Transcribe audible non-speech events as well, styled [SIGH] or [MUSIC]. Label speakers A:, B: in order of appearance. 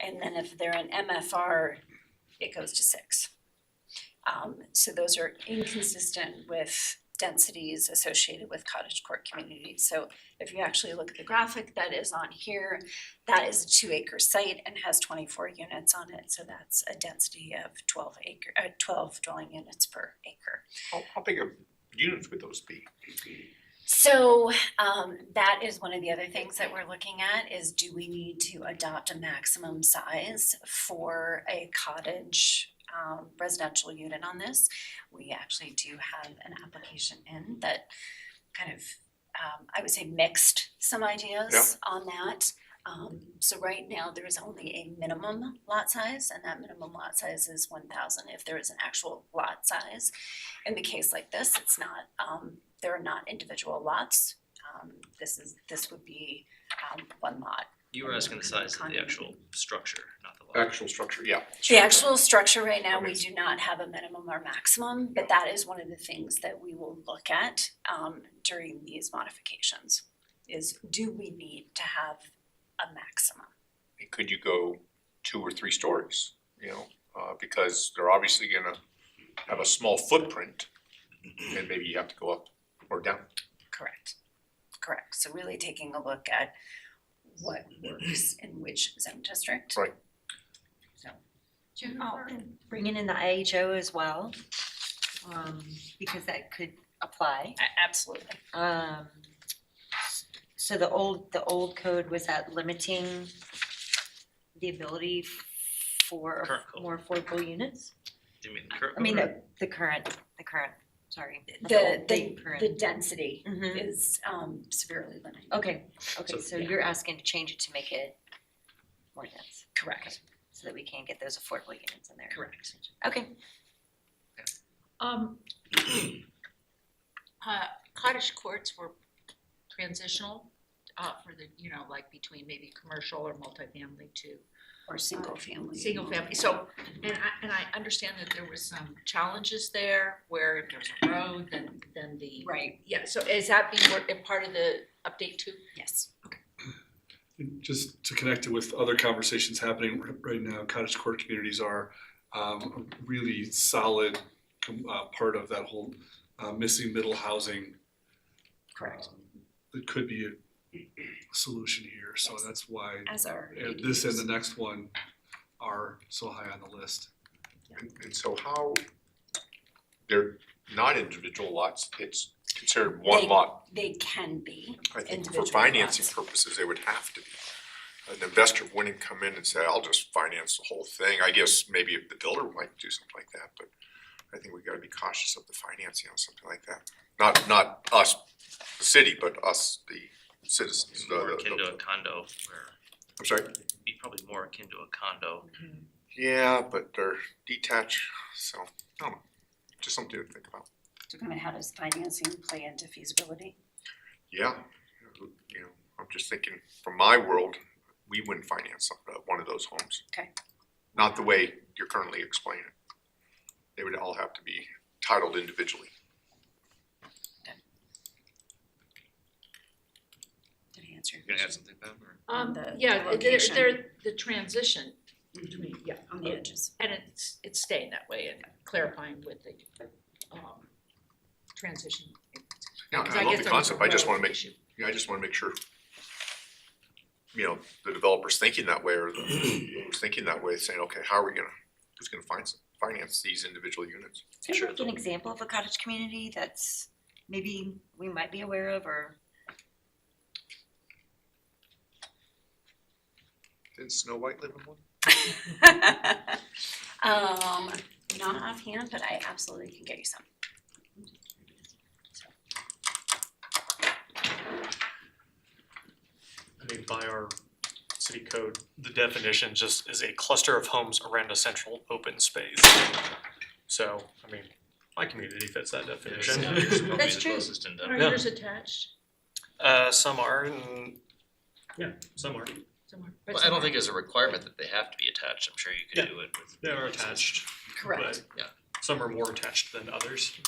A: and then if they're an MFR, it goes to six. Um, so those are inconsistent with densities associated with cottage court communities. So if you actually look at the graphic that is on here, that is a two acre site and has twenty-four units on it, so that's a density of twelve acre, uh, twelve dwelling units per acre.
B: How, how big of units would those be?
A: So um that is one of the other things that we're looking at is do we need to adopt a maximum size for a cottage um residential unit on this? We actually do have an application in that kind of um I would say mixed some ideas on that. Um so right now, there is only a minimum lot size and that minimum lot size is one thousand if there is an actual lot size in the case like this, it's not, um, there are not individual lots. Um, this is, this would be, um, one lot.
C: You were asking the size of the actual structure, not the lot.
B: Actual structure, yeah.
A: The actual structure right now, we
B: Okay.
A: do not have a minimum or maximum, but that is one of the things that we will look at, um, during these modifications. Is do we need to have a maximum?
B: Could you go two or three stories, you know, uh, because they're obviously gonna have a small footprint. And maybe you have to go up or down.
A: Correct. Correct. So really taking a look at what works in which zone district.
B: Right.
A: So.
D: Oh, and bringing in the IHO as well, um, because that could apply.
A: A- Absolutely.
D: Um, so the old, the old code was that limiting the ability for
C: Current code.
D: more affordable units?
C: Do you mean the current?
D: I mean, the, the current, the current, sorry. not
A: The,
D: old,
A: the, the
D: current.
A: density
D: Mhm.
A: is um severely limited.
D: Okay, okay,
C: So-
D: so you're asking to change it to make it more dense,
A: Correct,
D: so that we can get those affordable units in there.
A: correct.
D: Okay,
E: Um, uh, cottage courts were transitional, uh, for the, you know, like between maybe commercial or multifamily to
A: Or Uh, single family.
E: single family, so, and I, and I understand that there was some challenges there where if there's a road, then, then the.
A: Right,
E: Yeah, so is that being, worked- a part of the update too?
A: yes.
F: And Just to connect it with other conversations happening r- right now, cottage core communities are um, a really solid com- uh, part of that whole uh, missing middle housing.
A: Correct.
F: um, That could be a solution here, so
A: Yes.
F: that's why
A: As are
F: uh, this and
A: ADUs.
F: the next one are so high on the list.
B: And, and so how, they're not individual lots, it's considered one
A: They-
B: lot.
A: They can be,
B: I think for
A: individual
B: financing
A: lots.
B: purposes, they would have to be. An investor wouldn't come in and say, I'll just finance the whole thing. I guess maybe if the builder might do something like that, but I think we gotta be cautious of the financing on something like that. Not, not us, the city, but us, the citizens,
C: It's
B: the,
C: More akin to a
B: the,
C: condo where,
B: I'm sorry.
C: it'd be probably more akin to a condo.
B: Yeah, but they're detached, so, I don't know, just something to think about.
A: So I mean, how does financing play into feasibility?
B: Yeah, you know, I'm just thinking, from my world, we wouldn't finance some- uh, one of those homes.
A: Okay.
B: Not the way you're currently explaining. it. They would all have to be titled individually.
A: Did I answer your
C: You gonna add
A: question?
C: something, Pam, or?
A: On
E: Um,
A: the- the
E: yeah, they're,
A: location.
E: they're, the transition
A: Mhm.
E: between, yeah,
A: On the edges.
E: And it's, it's staying that way and clarifying with the, um, transition.
B: Yeah, I love the
E: Because guess there was a
B: concept, I just
E: road
B: wanna make,
E: issue.
B: yeah, I just wanna make sure, you know, the developer's thinking that way, or the, who's thinking that way, saying, okay, how are we gonna, who's gonna finance, finance these individual units?
D: can
C: Sure.
D: you give an example of a cottage community that's maybe we might be aware of or?
B: Didn't Snow White live in one?
A: Um, not offhand, but I absolutely can get you some.
G: I mean, by our city code, the definition just is a cluster of homes around a central open space. So, I mean, my community fits
C: It's
D: [LAUGHS]
G: that definition.
C: probably
D: That's
C: the
D: true.
C: closest in
E: Are
C: Denver.
G: Yeah.
E: yours attached
G: Uh, some are and, yeah, some are.
E: somewhere?
C: Well, I don't think it's a requirement that they have to be attached, I'm sure you
G: Yeah.
C: could do it with.
G: They are attached,
A: Correct.
G: but yeah, some are more attached than others.